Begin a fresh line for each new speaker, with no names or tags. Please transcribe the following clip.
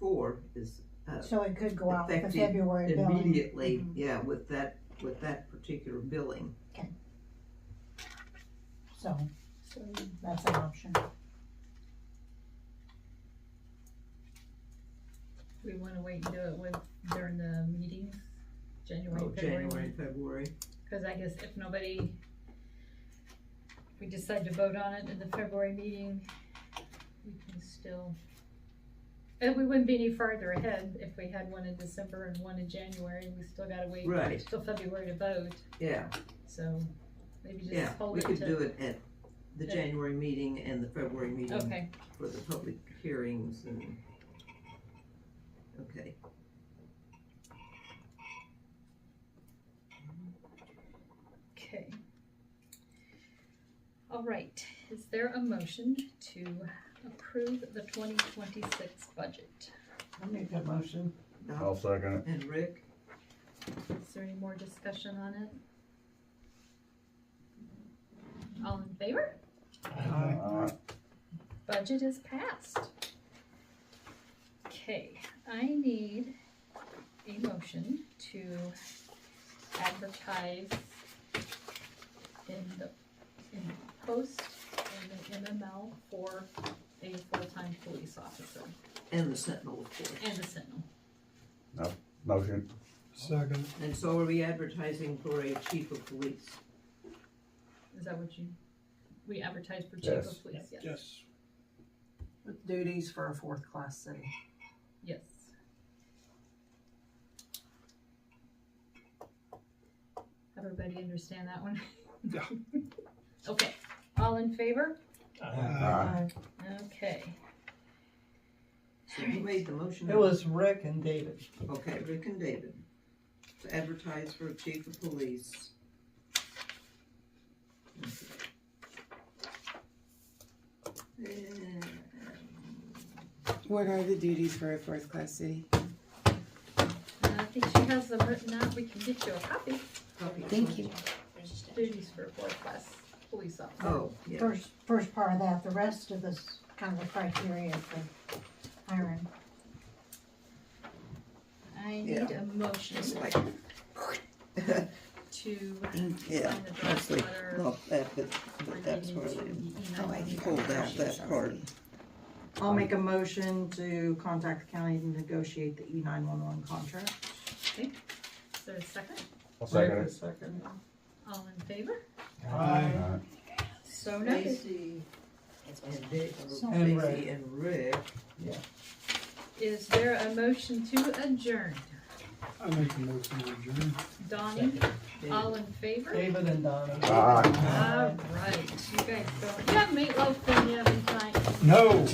four is uh,
So it could go out for
Effective
February billing.
Mm-hmm.
immediately,
Mhm.
yeah, with that, with that particular billing.
So, so that's an option.
We wanna wait and do it with, during the meetings, January,
Oh, January,
February,
and February.
cause I guess if nobody, if we decide to vote on it in the February meeting, we can still, and we wouldn't be any farther ahead if we had one in December and one in January, we still gotta wait
Right.
till February to vote,
Yeah,
so maybe
yeah.
just hold
We
it to.
could do it at the
Yeah.
January meeting and the February meeting
Okay,
for the public hearings and, okay.
okay. All right, is there a motion to approve the twenty twenty-six budget?
I'll make that motion.
Doc
Oh.
I'll second it.
and Rick,
Is there any more discussion on it? All in favor?
Aye.
Budget is passed. Okay, I need a motion to advertise in the, in the post and the MML for a full-time police officer
and the Sentinel, of course.
and a sentinel.
Motion.
Second.
And so are we advertising for a chief of police?
Is that what you, we advertise for chief
Yes.
of police? Yes.
Yes.
With duties for a fourth class city.
Yes. Everybody understand that one?
Yeah.
Okay, all in favor?
Aye.
Uh,
Okay,
So you made the motion.
It was Rick and David.
Okay, Rick and David, to advertise for chief of police. And
What are the duties for a fourth class city?
and Uh, I think she has them written out, we can get you a copy,
copy.
Thank you.
duties for fourth class police officer.
Oh, yeah,
First, first part of that, the rest of this kind of criteria for hiring.
I need a motion
it's like,
to
Yeah,
sign the draft
mostly
letter.
Not that, but that's
relating
where
to
they
the
Oh, I
email.
think
Okay.
pulled out that part.
I'll make a motion to contact the county to negotiate the E nine one one contract.
Is there a second?
I'll
Rick
second it.
second.
All in favor?
Aye.
So noted.
Stacy and Dick, or
So-
And
Stacy and Rick,
Is there a motion to adjourn?
I make a motion to adjourn.
Donnie,
David.
all in favor?
David and Donna.
Aye.
All right, you guys go. You have meatloaf for me every time.
No.